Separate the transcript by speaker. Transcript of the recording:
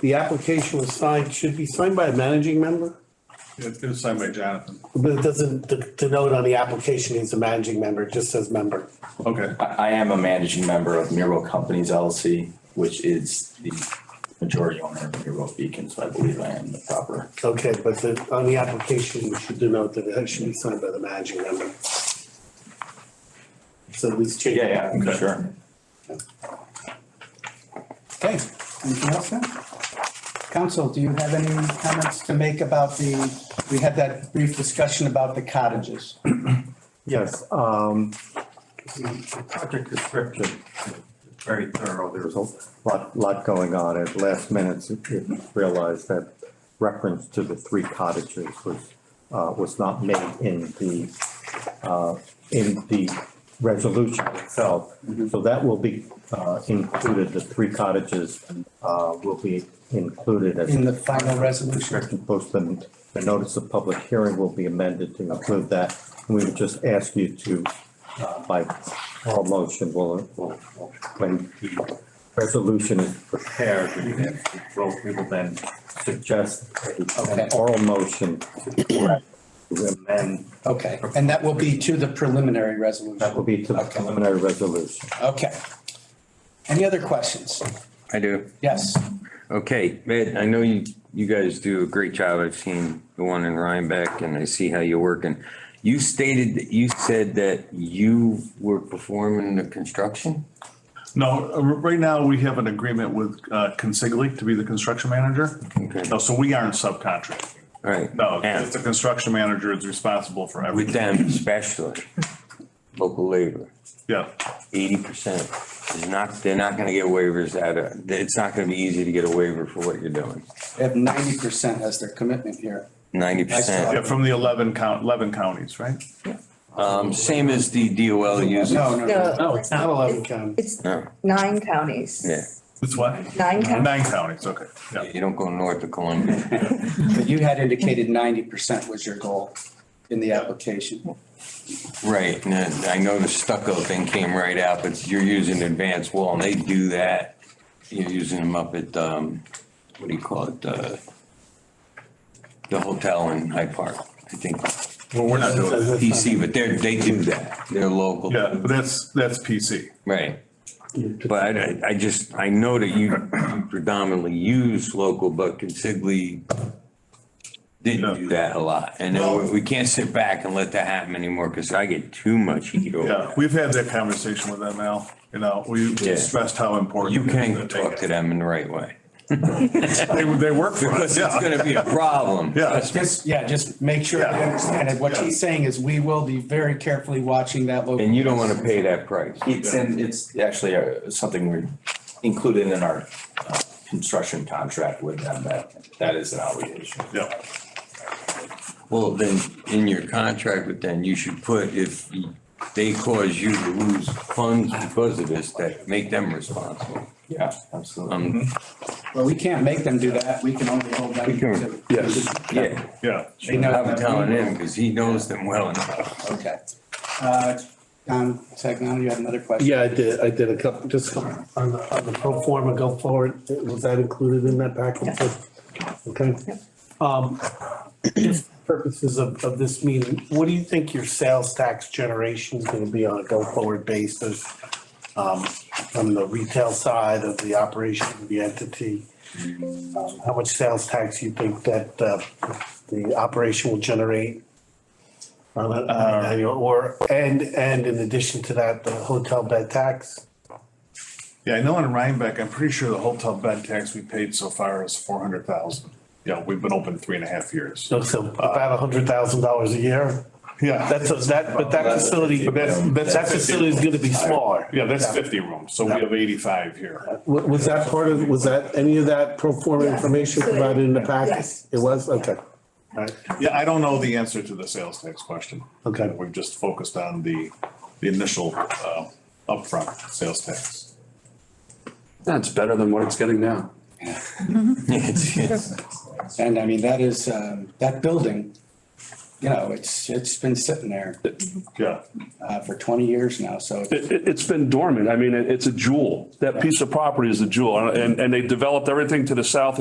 Speaker 1: the application was signed, should be signed by a managing member,
Speaker 2: It's been signed by Jonathan.
Speaker 1: but it doesn't de- denote on the application he's a managing member, it just says member.
Speaker 2: Okay,
Speaker 3: I, I am a managing member of Miro Companies LLC, which is the majority owner of Miro Beacon, so I believe I am the proper.
Speaker 1: Okay, but the, on the application, you should denote that it should be signed by the managing member. So these change.
Speaker 3: Yeah, yeah, sure.
Speaker 4: Okay, anything else then? Council, do you have any comments to make about the, we had that brief discussion about the cottages?
Speaker 5: Yes, um, the project description, is very thorough, there's a lot, lot going on. At last minute, it- it realized that reference to the three cottages was, uh, was not made in the, uh, in the resolution itself. So that will be, uh, included, the three cottages, uh, will be included as
Speaker 4: In the final resolution?
Speaker 5: restriction post and the notice of public hearing will be amended to include that. And we would just ask you to, uh, by all motion, will, will, will- when the resolution is prepared, we would ask you- we'll- we will then suggest a-
Speaker 4: Okay.
Speaker 5: an oral motion to correct, to amend,
Speaker 4: Okay, and that will be to the preliminary
Speaker 5: that will
Speaker 4: resolution?
Speaker 5: be to the
Speaker 4: Okay.
Speaker 5: preliminary resolution.
Speaker 4: Okay. Any other questions?
Speaker 6: I do.
Speaker 4: Yes,
Speaker 6: Okay, Ed, I know you, you guys do a great job. I've seen the one in Rhinebeck and I see how you're working. You stated, that you said that you were performing the construction?
Speaker 2: no, uh, right now we have an agreement with uh, Consigli to be the construction manager.
Speaker 6: Okay.
Speaker 2: No, so we aren't subcontracting.
Speaker 6: All right.
Speaker 2: No, it's
Speaker 6: And
Speaker 2: the construction manager is responsible for
Speaker 6: with
Speaker 2: everything.
Speaker 6: them especially, local labor,
Speaker 2: Yeah,
Speaker 6: eighty percent is not, they're not gonna get waivers at a, it's not gonna be easy to get a waiver for what you're doing.
Speaker 4: they have ninety percent as their commitment here.
Speaker 6: Ninety
Speaker 2: yeah,
Speaker 6: percent.
Speaker 2: from the eleven count, eleven counties, right?
Speaker 6: Um, same as the DOL uses.
Speaker 4: No, no, no.
Speaker 1: No, it's not eleven county.
Speaker 7: It's
Speaker 6: No.
Speaker 7: nine counties.
Speaker 6: Yeah.
Speaker 2: It's what?
Speaker 7: Nine counties.
Speaker 2: Nine counties, okay, yeah.
Speaker 6: You don't go north of Columbia.
Speaker 4: But you had indicated ninety percent was your goal in the application.
Speaker 6: Right, and then I know the stucco thing came right out, but you're using advanced wall and they do that. You're using them up at, um, what do you call it, uh, the hotel in Hyde Park, I think,
Speaker 2: Well, we're not doing that.
Speaker 6: PC, but they're, they do that. They're local.
Speaker 2: Yeah, but that's, that's PC.
Speaker 6: Right. But I, I just, I know that you predominantly use local, but Consigli didn't do that a lot. And then we- we can't sit back and let that happen anymore because I get too much heat over
Speaker 2: Yeah,
Speaker 6: that.
Speaker 2: we've had that conversation with them, Al, you know, we
Speaker 6: Yeah.
Speaker 2: stressed how important.
Speaker 6: You
Speaker 2: it is
Speaker 6: can talk to them in the right way.
Speaker 2: They, they work for us,
Speaker 6: Because it's
Speaker 2: yeah,
Speaker 6: gonna be a problem.
Speaker 2: Yeah.
Speaker 6: Trust me.
Speaker 4: Just, yeah, just make sure
Speaker 2: Uh, Yeah.
Speaker 4: I understand it. What
Speaker 2: Yeah.
Speaker 4: he's saying is we will be very carefully watching that local.
Speaker 6: And you don't wanna pay that price.
Speaker 3: It's in, it's actually uh, something we included in our uh, construction contract with them, that, that is an obligation.
Speaker 2: yeah.
Speaker 6: Well, then, in your contract with them, you should put if they cause you to lose funds because of this, that make them responsible.
Speaker 3: Yeah, absolutely.
Speaker 6: Um,
Speaker 4: Well, we can't make them do that. We can only hold them
Speaker 6: We can-
Speaker 4: to.
Speaker 6: yeah,
Speaker 2: Yeah.
Speaker 4: They know
Speaker 2: Mm-hmm.
Speaker 6: I'm
Speaker 4: that we
Speaker 6: telling
Speaker 4: will.
Speaker 6: him, cause he knows them well enough.
Speaker 4: Okay. Uh, Don Sagnano, you had another question?
Speaker 1: Yeah, I did, I did a couple, just on the, on the pro forma go forward, was that included in that package? Okay. Um, just purposes of, of this meeting, what do you think your sales tax generation is gonna be on a go forward basis? Um, from the retail side of the operation of the entity? Um, How much sales tax you think that, uh, the operation will generate? on a- on an annual- Or, and, and in addition to that, the hotel bed tax?
Speaker 2: Yeah, I know in Rhinebeck, I'm pretty sure the hotel bed tax we paid so far is four hundred thousand. Yeah, we've been open three and a half years.
Speaker 1: So uh, so about a hundred thousand dollars a year?
Speaker 2: Yeah,
Speaker 1: That's,
Speaker 2: that's,
Speaker 1: a- that, but that facility,
Speaker 2: but that's, that's.
Speaker 1: that facility is gonna be smaller.
Speaker 2: Yeah, that's fifty rooms, so we have eighty-five here.
Speaker 1: Wa- Was that part of, was that, any of that pro forma
Speaker 7: Yes.
Speaker 1: information provided in the packet?
Speaker 7: Yes.
Speaker 1: It was, okay. All right.
Speaker 2: Yeah, I don't know the answer to the sales tax question.
Speaker 1: Okay.
Speaker 2: We've just focused on the, the initial, uh, upfront sales tax.
Speaker 8: That's better than what it's getting now.
Speaker 6: It's- it's-
Speaker 4: And I mean, that is, um, that building, you know, it's, it's been sitting there,
Speaker 2: Yeah,
Speaker 4: uh, for twenty years now, so.
Speaker 8: It, it, it's been dormant. I mean, it, it's a jewel. That piece of property is a jewel and, and they developed everything to the south